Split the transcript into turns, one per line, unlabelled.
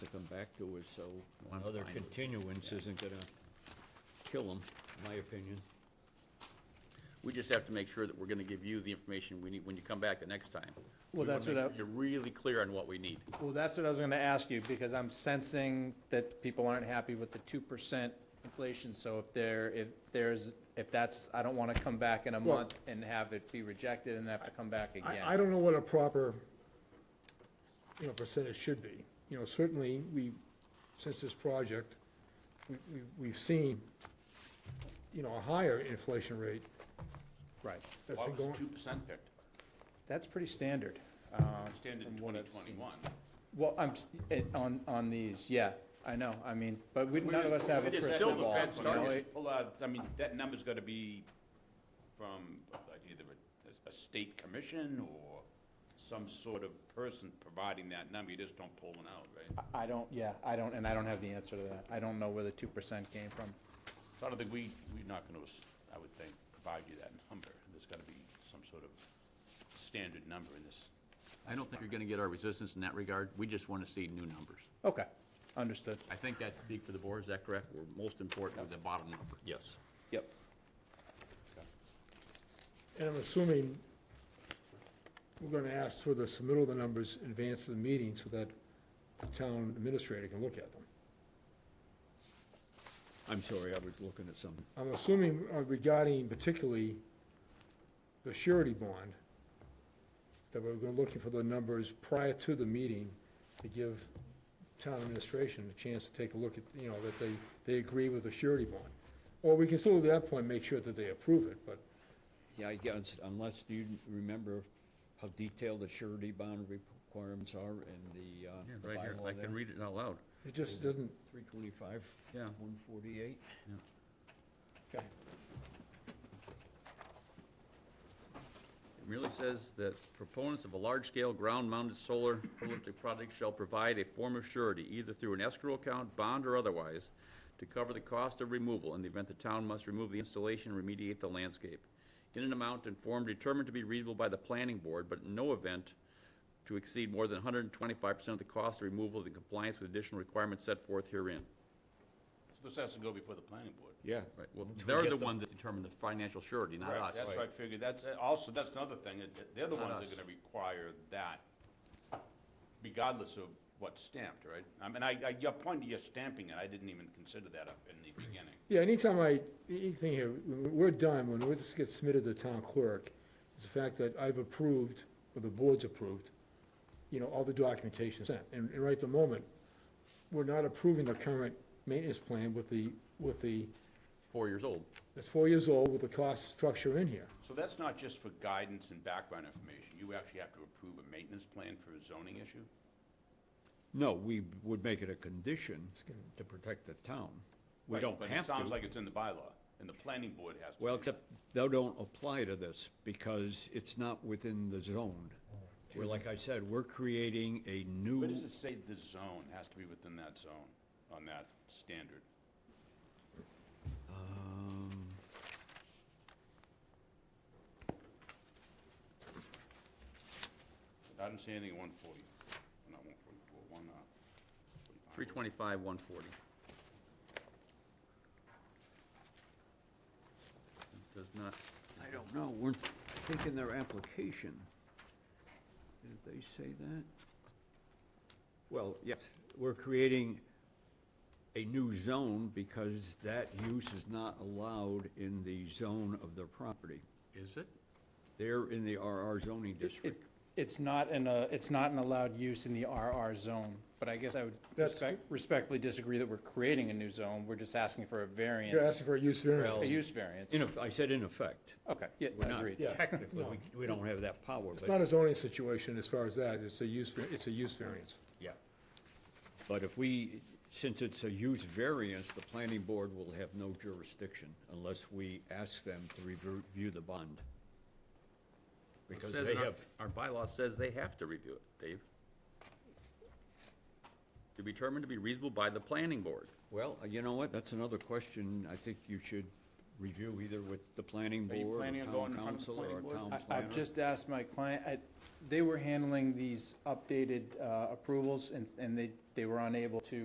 back to us, so
I'm
another
fine with it.
continuance isn't gonna kill them, my opinion.
We just have to make sure that we're gonna give you the information we need when you come back the next time. We
Well,
wanna
that's what
make sure
I-
You're really clear on what we need.
Well, that's what I was gonna ask you, because I'm sensing that people aren't happy with the two percent inflation, so if there, if there's, if that's, I don't wanna come back in a
Well-
month and have it be rejected and have to come back again.
I, I don't know what a proper, you know, percentage should be. You know, certainly, we, since this project, we, we, we've seen, you know, a higher inflation rate
Right,
that's
Why
been
was two
going,
percent picked?
that's pretty standard.
Extended in
from what
twenty
I've seen.
twenty-one.
Well, I'm, s- it- on, on these, yeah, I know, I mean, but we, none of us have a
It's
crystal
still
ball.
depends
you
on-
know,
just
it-
pull out- I mean, that number's gotta be from like, either a, a state commission or some sort of person providing that number. You just don't pull one out, right?
I don't, yeah, I don't, and I don't have the answer to that. I don't know where the two percent came from.
So I don't think we, we're not gonna, s- I would think, provide you that number. There's gotta be some sort of standard number in this. I don't think you're gonna get our resistance in that regard. We just wanna see new numbers.
Okay, understood.
I think that speaks for the board, is that correct? We're most important with the bottom number. Yes.
Yep.
and I'm assuming we're gonna ask for the submittal of the numbers in advance of the meeting so that the town administrator can look at them.
I'm sorry, I was looking at something.
I'm assuming uh, regarding particularly the surety bond, that we're gonna looking for the numbers prior to the meeting to give town administration a chance to take a look at, you know, that they, they agree with the surety bond. Or we can still at that point make sure that they approve it, but
Yeah, I guess, unless you remember how detailed the surety bond requirements are in the, uh, the
Right here,
bylaw
I
there.
can read it out loud.
it just doesn't,
325,
Yeah.
148.
Okay.
It merely says that proponents of a large-scale ground-mounted solar photovoltaic project shall provide a form of surety, either through an escrow account, bond, or otherwise, to cover the cost of removal in the event the town must remove the installation and remediate the landscape, in an amount and form determined to be reasonable by the planning board, but in no event to exceed more than hundred and twenty-five percent of the cost of removal in compliance with additional requirements set forth herein.
So This has to go before the planning board.
Yeah.
Right, well, they're the one that determine the financial surety, not us.
That's what I figured, that's, uh, also, that's another thing, that- that they're the
Not
ones that
us.
are gonna require that, regardless of what's stamped, right? I mean, I, I, your point, you're stamping it, I didn't even consider that up in the beginning.
yeah, anytime I, anything here, when we're done, when this gets submitted to the town clerk, is the fact that I've approved, or the board's approved, you know, all the documentation sent. And, and right at the moment, we're not approving the current maintenance plan with the, with the,
Four years old.
it's four years old with the cost structure in here.
So that's not just for guidance and background information, you actually have to approve a maintenance plan for a zoning issue?
No, we would make it a condition to protect the town. We
Right,
don't
but
have
It sounds
to.
like it's in the bylaw, and the planning board has to.
Well,
do it.
except they don't apply to this because it's not within the zone. Where, like I said, we're creating a
Where
new,
does it say the zone has to be within that zone, on that standard?
um,
I didn't see anything at one forty, not one forty-four, one, uh, 45.
Three twenty-five, one forty. Does not,
I don't know, we're thinking their application. Did they say that? Well, yes, we're creating a new zone because that use is not allowed in the zone of their property.
is it?
They're in the RR zoning
It,
district.
it's not in a, it's not an allowed use in the RR zone, but I guess I would
That's-
respect- respectfully disagree that we're creating a new zone, we're just asking for a
You're
variance,
asking for a use variance.
a use variance.
In, eff- I said in effect.
Okay, yeah,
We're not,
agreed.
Yeah.
technically, we, we don't have that power,
It's not
but,
a zoning situation as far as that, it's a use, var- it's a use variance.
yeah. But if we, since it's a use variance, the planning board will have no jurisdiction unless we ask them to rever- review the bond. Because
Says
they
in our-
have,
Our bylaw says they have to review it, Dave. To be determined to be reasonable by the planning board.
well, you know what, that's another question I think you should review either with the planning
Are you
board,
planning
or town
on going in front of the
council, or
planning board?
town
I,
planner.
I've just asked my client, I, they were handling these updated, uh, approvals and, and they, they were unable to